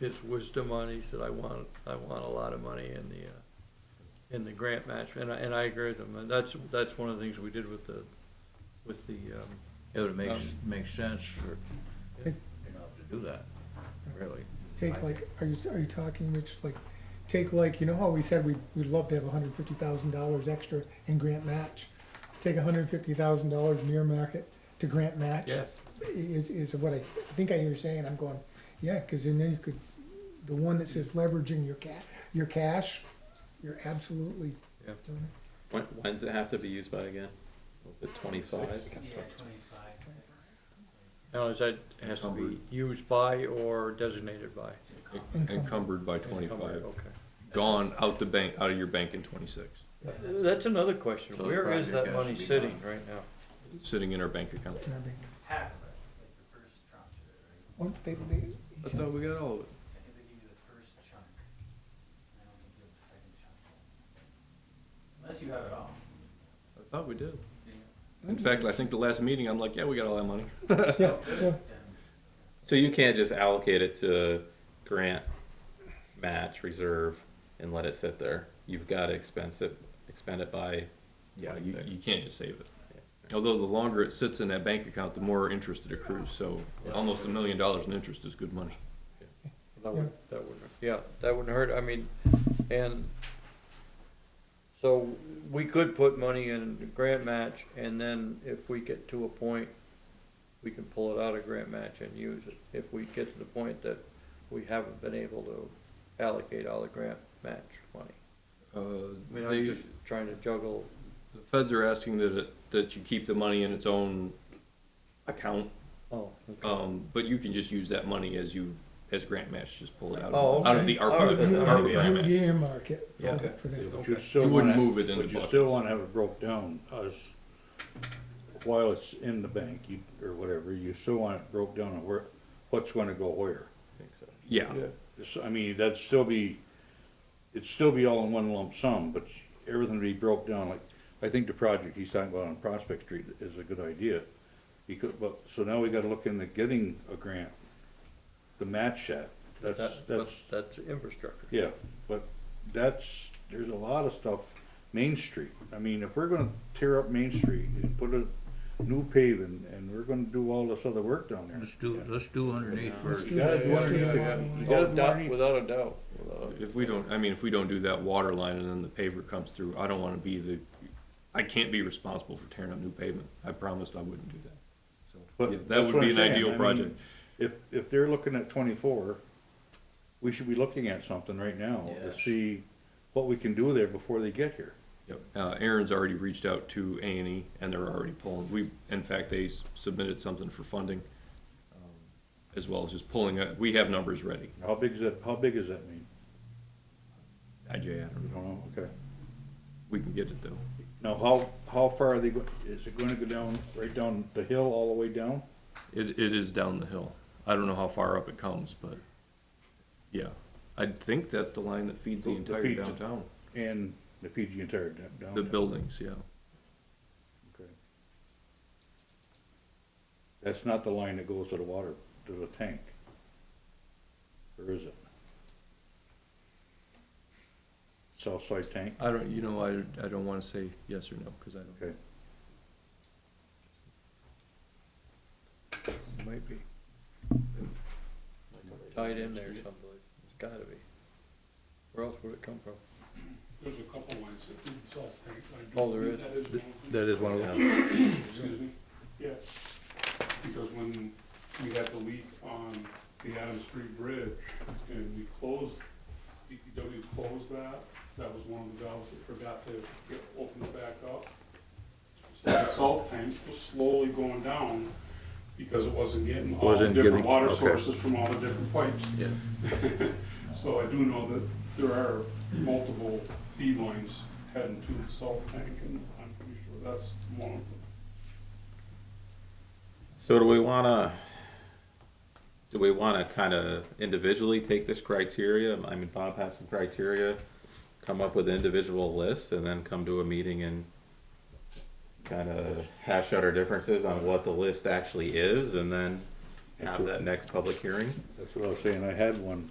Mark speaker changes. Speaker 1: his wisdom on, it. he said, I want, I want a lot of money in the, uh, in the grant match, and I, and I agree with him, and that's, that's one of the things we did with the, with the, um,
Speaker 2: It would make, s-
Speaker 3: Um,
Speaker 2: make sense for, you know, to do that, really.
Speaker 3: Take like, are you, are you talking, Rich, like, take like, you know how we said we, we'd love to have hundred and fifty thousand dollars extra in grant match? Take hundred and fifty thousand dollars near market to grant match?
Speaker 1: Yes.
Speaker 3: Is, is what I, I think I hear you saying, I'm going, yeah, cause then you could, the one that says leveraging your ca- your cash, you're absolutely
Speaker 1: Yeah.
Speaker 3: doing it.
Speaker 4: When, when's it have to be used by again? Was it twenty-five?
Speaker 5: Yeah, twenty-five.
Speaker 1: now is that, has to be used by or designated by?
Speaker 6: Encumbered by twenty-five,
Speaker 1: Okay.
Speaker 6: gone out the bank, out of your bank in twenty-six,
Speaker 1: That's another question,
Speaker 2: So the
Speaker 1: where is
Speaker 2: project
Speaker 1: that
Speaker 2: has to
Speaker 1: money
Speaker 2: be
Speaker 1: sitting
Speaker 2: done.
Speaker 1: right now?
Speaker 6: sitting in our bank account.
Speaker 3: in our bank.
Speaker 5: Half of it, like the first tranche of it, right?
Speaker 3: One, they, they, he
Speaker 6: I
Speaker 3: said-
Speaker 6: thought we got all of it.
Speaker 5: I think they give you the first chunk. and I don't think you have the second chunk. Unless you have it all.
Speaker 6: I thought we did.
Speaker 5: Yeah.
Speaker 6: In fact, I think the last meeting, I'm like, yeah, we got all that money.
Speaker 3: yeah, yeah,
Speaker 5: Oh, Then-
Speaker 4: So you can't just allocate it to grant, match, reserve, and let it sit there. You've gotta expense it, expend it by
Speaker 6: Yeah, you,
Speaker 4: twenty-six.
Speaker 6: you can't just save it. Although the longer it sits in that bank account, the more interest it accrues, so almost a million dollars in interest is good money.
Speaker 1: That would, that wouldn't, yeah, that wouldn't hurt, I mean, and so we could put money in the grant match and then if we get to a point, we can pull it out of grant match and use it. If we get to the point that we haven't been able to allocate all the grant match money.
Speaker 6: Uh,
Speaker 1: I mean,
Speaker 6: they-
Speaker 1: I'm just trying to juggle,
Speaker 6: the feds are asking that, it- that you keep the money in its own account,
Speaker 1: oh, okay.
Speaker 6: um, but you can just use that money as you, as grant match, just pull it out
Speaker 1: Oh,
Speaker 6: of,
Speaker 1: okay.
Speaker 6: out of the
Speaker 1: All right.
Speaker 6: ARPA,
Speaker 3: You-
Speaker 6: ARPA
Speaker 3: you-
Speaker 6: grant match.
Speaker 3: you earmark it for
Speaker 6: Yeah.
Speaker 3: that- for that.
Speaker 7: But you
Speaker 6: You
Speaker 7: still
Speaker 6: wouldn't
Speaker 7: wanna,
Speaker 6: move it into
Speaker 7: but you still
Speaker 6: buckets.
Speaker 7: wanna have it broke down as, while it's in the bank, you, or whatever, you still want it broke down on where, what's gonna go where.
Speaker 6: Yeah,
Speaker 7: So, I mean, that'd still be, it'd still be all in one lump sum, but everything would be broke down, like, I think the project he's talking about on Prospect Street is a good idea. Because, but, so now we gotta look into getting a grant to match that, that's,
Speaker 1: That, that's,
Speaker 7: that's.
Speaker 1: that's infrastructure.
Speaker 7: Yeah, but that's, there's a lot of stuff, Main Street, I mean, if we're gonna tear up Main Street and put a new paving, and we're gonna do all this other work down there.
Speaker 2: Let's do, let's do underneath
Speaker 3: Let's
Speaker 2: first.
Speaker 3: do
Speaker 7: You gotta
Speaker 3: that.
Speaker 7: do
Speaker 3: Let's do
Speaker 7: underneath
Speaker 3: that.
Speaker 7: the- you gotta do underneath-
Speaker 4: Without a doubt, without a-
Speaker 6: if we don't, I mean, if we don't do that water line and then the paver comes through, I don't wanna be the, I can't be responsible for tearing up new pavement. I promised I wouldn't do that. So,
Speaker 7: but
Speaker 6: yeah,
Speaker 7: that's
Speaker 6: That would
Speaker 7: what
Speaker 6: be
Speaker 7: I'm
Speaker 6: an
Speaker 7: saying, I
Speaker 6: ideal
Speaker 7: mean,
Speaker 6: project.
Speaker 7: If, if they're looking at twenty-four, we should be looking at something right now to
Speaker 2: Yes.
Speaker 7: see what we can do there before they get here.
Speaker 6: Yep. Uh, Aaron's already reached out to A and E and they're already pulling, we, in fact, they s- submitted something for funding. um, As well as just pulling, uh, we have numbers ready.
Speaker 7: How big is that, how big does that mean?
Speaker 6: IJ, I don't
Speaker 7: You
Speaker 6: know.
Speaker 7: don't know, okay.
Speaker 6: We can get it though.
Speaker 7: Now, how, how far are they, go- is it gonna go down, right down the hill all the way down?
Speaker 6: It, it is down the hill. I don't know how far up it comes, but yeah. I think that's the line that feeds the
Speaker 7: That
Speaker 6: entire
Speaker 7: feeds it.
Speaker 6: downtown,
Speaker 7: And the Fiji entire d- down.
Speaker 6: the
Speaker 7: there.
Speaker 6: buildings, yeah.
Speaker 7: Okay. That's not the line that goes to the water, to the tank. Or is it? South side tank,
Speaker 6: I don't, you know, I, I don't wanna say yes or no, cause I don't,
Speaker 7: okay.
Speaker 1: It might be. Tied in there someplace, it's gotta be. Where else would it come from?
Speaker 8: There's a couple lines that do self paint. I do
Speaker 1: Oh, there
Speaker 8: believe
Speaker 1: is.
Speaker 8: That is one of
Speaker 7: That
Speaker 8: them,
Speaker 7: is one of them.
Speaker 8: excuse me, yes. Because when we had the leak on the Adams Street Bridge and we closed, DPW closed that, that was one of the valves that forgot to get, open it back up. So the salt tank was slowly going down because it wasn't getting all the
Speaker 7: Wasn't
Speaker 8: different
Speaker 7: getting-
Speaker 8: water
Speaker 7: okay.
Speaker 8: sources from all the different pipes.
Speaker 6: yeah.
Speaker 8: So I do know that there are multiple feed lines heading to the salt tank, and I'm pretty sure that's one of them.
Speaker 4: So do we wanna, do we wanna kinda individually take this criteria, I mean, Bob has some criteria, come up with individual lists and then come to a meeting and kinda hash out our differences on what the list actually is and then have that next public hearing?
Speaker 7: That's what I was saying, I had one